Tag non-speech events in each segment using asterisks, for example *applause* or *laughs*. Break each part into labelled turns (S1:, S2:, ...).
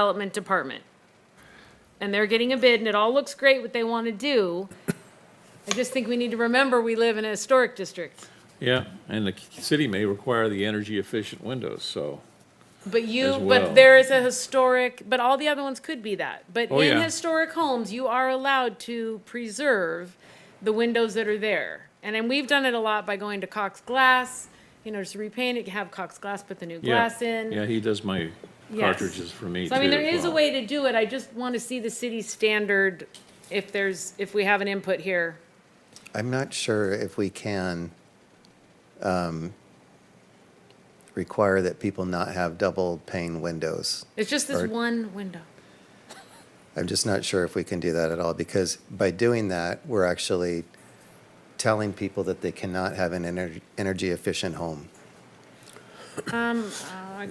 S1: Development Department. And they're getting a bid and it all looks great what they want to do. I just think we need to remember we live in a historic district.
S2: Yeah, and the c- city may require the energy efficient windows, so,
S1: But you,
S2: As well.
S1: but there is a historic, but all the other ones could be that. But
S2: Oh,
S1: in
S2: yeah.
S1: historic homes, you are allowed to preserve the windows that are there. And then we've done it a lot by going to Cox Glass, you know, just repaint it, have Cox Glass put the new
S2: yeah.
S1: glass in.
S2: Yeah, he does my
S1: Yes.
S2: cartridges for me too.
S1: So I mean, there
S2: as
S1: is a
S2: well.
S1: way to do it. I just want to see the city standard if there's, if we have an input here.
S3: I'm not sure if we can um, require that people not have double pane windows.
S1: It's just this
S3: Or-
S1: one window.
S3: I'm just not sure if we can do that at all, because by doing that, we're actually telling people that they cannot have an ener- energy efficient home.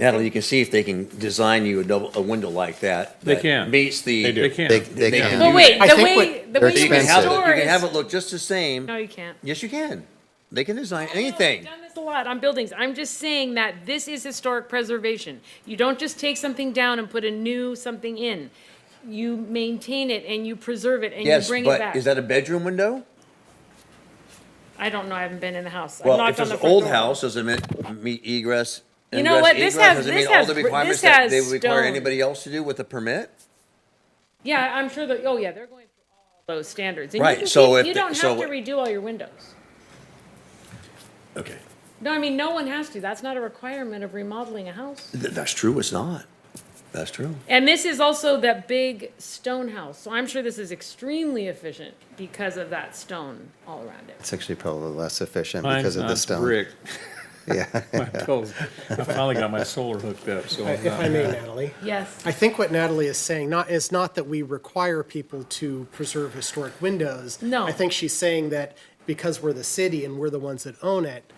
S4: Natalie, you can see if they can design you a double, a window like that.
S2: They
S4: that
S2: can.
S4: Meets the.
S2: They do. They can.
S3: They, they
S4: They
S3: can.
S4: can
S1: Well,
S4: do
S1: wait,
S4: that.
S1: the way, the
S3: they're
S1: way you
S4: You can have it, you
S1: restore
S4: can have
S1: is.
S4: it look just the same.
S1: No, you can't.
S4: Yes, you can. They can design
S1: No,
S4: anything.
S1: We've done this a lot on buildings. I'm just saying that this is historic preservation. You don't just take something down and put a new something in. You maintain it and you preserve it and you
S4: Yes,
S1: bring it
S4: but
S1: back.
S4: is that a bedroom window?
S1: I don't know, I haven't been in the house. I've
S4: Well,
S1: knocked
S4: if it's
S1: on
S4: an
S1: the front
S4: old
S1: door.
S4: house, does it meet- meet egress?
S1: You know what? This
S4: ingress,
S1: has-
S4: egress? Does it
S1: this
S4: meet all
S1: has
S4: the
S1: br- this
S4: requirements that They
S1: has
S4: require
S1: stone.
S4: anybody else to do with a permit?
S1: Yeah, I'm sure that, oh yeah, they're going through all those standards. And you
S4: Right,
S1: can
S4: so
S1: keep-
S4: if
S1: You
S4: the-
S1: don't
S4: so
S1: have to
S4: what-
S1: redo all your windows.
S4: Okay.
S1: No, I mean, no one has to. That's not a requirement of remodeling a house.
S4: That's true, it's not. That's true.
S1: And this is also that big stone house, so I'm sure this is extremely efficient because of that stone all around it.
S3: It's actually probably less efficient
S2: Mine's
S3: because of the
S2: not
S3: stone.
S2: brick.
S3: *laughs*
S2: *laughs*
S3: Yeah.
S4: *laughs*
S2: My bills- I finally got my solar hooked up, so I'm
S5: If I
S2: not,
S5: may, Natalie,
S1: Yes.
S5: I think what Natalie is saying, not, is not that we require people to preserve historic windows.
S1: No.
S5: I think she's saying that because we're the city and we're the ones that own it,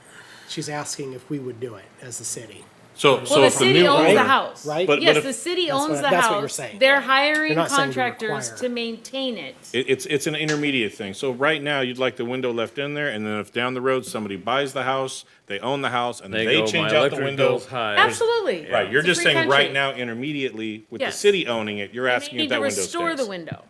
S5: she's asking if we would do it as the city.
S6: So,
S1: Well,
S6: so
S1: the
S6: if a
S1: city
S6: new
S1: owns the
S6: owner,
S1: house.
S5: right? But-
S1: Yes,
S6: but
S1: the
S6: if-
S1: city
S5: That's
S1: owns
S5: what-
S1: the
S5: that's what you're
S1: house.
S5: saying.
S1: They're
S5: You're
S1: hiring
S5: not saying we
S1: contractors
S5: require
S1: to
S5: it.
S1: maintain it.
S6: it- it's, it's an intermediate thing. So right now, you'd like the window left in there, and then if down the road, somebody buys the house, they own the house, and
S2: they
S6: they
S2: go, my
S6: change out the
S2: electric
S6: window.
S2: bill's high.
S1: Absolutely.
S6: Right, you're
S1: It's a
S6: just
S1: free
S6: saying right
S1: country.
S6: now, intermediately, with the
S1: Yes.
S6: city owning it, you're
S1: They
S6: asking
S1: need
S6: if
S1: to
S6: that window
S1: restore the
S6: stays.
S1: window.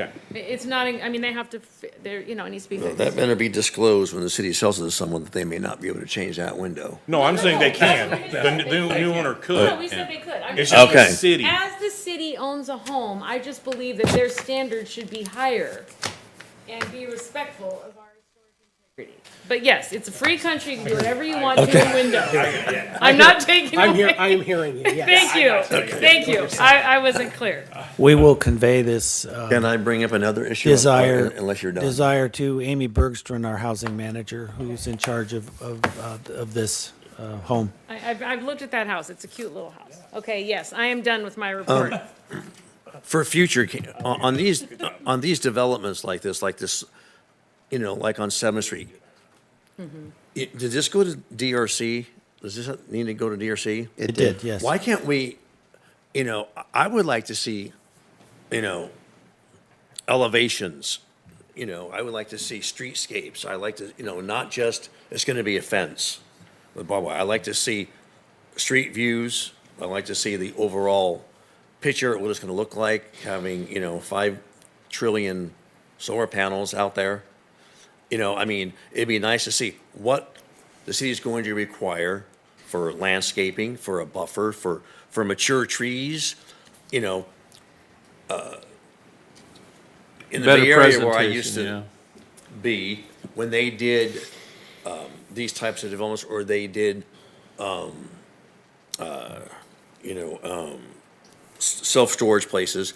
S6: Okay,
S1: I- It's not, I mean, they have to, fi- they're, you know, it needs to be fixed.
S4: That better be disclosed when the city sells it to someone that they may not be able to change that window.
S6: no, I'm saying they
S1: no,
S6: can.
S1: that's
S6: The
S1: what it
S6: n-
S1: is.
S6: new, new owner
S1: No, we
S6: could.
S1: said they could. I'm
S6: It's
S1: just
S6: just the
S4: Okay.
S6: city.
S1: As the city owns a home, I just believe that their standards should be higher and be respectful of our historic integrity. But yes, it's a free country, you can do whatever you want to your
S5: *laughs*
S1: window. I'm not taking
S5: I'm here,
S1: away.
S5: I'm hearing you, yes.
S1: Thank you, thank you. I, I wasn't clear.
S7: We will convey this uh,
S4: Can I bring up another issue?
S7: desire,
S4: Unless you're done.
S7: desire to Amy Bergstrom, our housing manager, who's in charge of, of, uh, of this uh, home.
S1: I, I've, I've looked at that house. It's a cute little house. Okay, yes, I am done with my report.
S4: for future ca- on, on these on these developments like this, like this, you know, like on Seventh Street.
S7: Mm-hmm.
S4: It- did this go to DRC? Does this need to go to DRC?
S7: It did, yes.
S4: Why can't we? You know, I- I would like to see, you know, elevations. You know, I would like to see streetscapes. I like to, you know, not just it's going to be a fence with barbed wire. I like to see street views. I like to see the overall picture of what it's going to look like, having, you know, five trillion solar panels out there. You know, I mean, it'd be nice to see what the city's going to require for landscaping, for a buffer, for, for mature trees, you know. uh, In the
S2: Better
S4: Bay Area where I used
S2: presentation, yeah.
S4: to be, when they did um, these types of developments, or they did, um, uh, you know, um, s- self-storage places,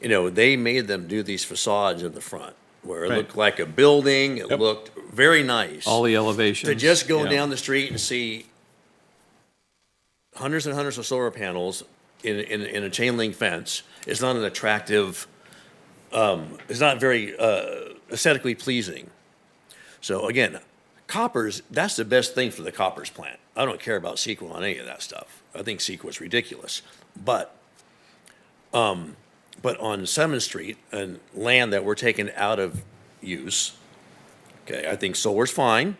S4: you know, they made them do these facades in the front where it
S2: Right.
S4: looked like a building. It
S2: Yep.
S4: looked very nice.
S2: All the elevations.
S4: to just go
S2: yeah.
S4: down the street and see hundreds and hundreds of solar panels in, in, in a chain link fence is not an attractive, um, it's not very uh, aesthetically pleasing. So again, coppers, that's the best thing for the coppers plant. I don't care about CEQA on any of that stuff. I think CEQA is ridiculous. But um, but on Seventh Street and land that we're taking out of use, okay, I think solar's fine,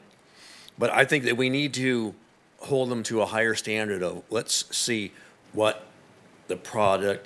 S4: but I think that we need to hold them to a higher standard of, let's see what the product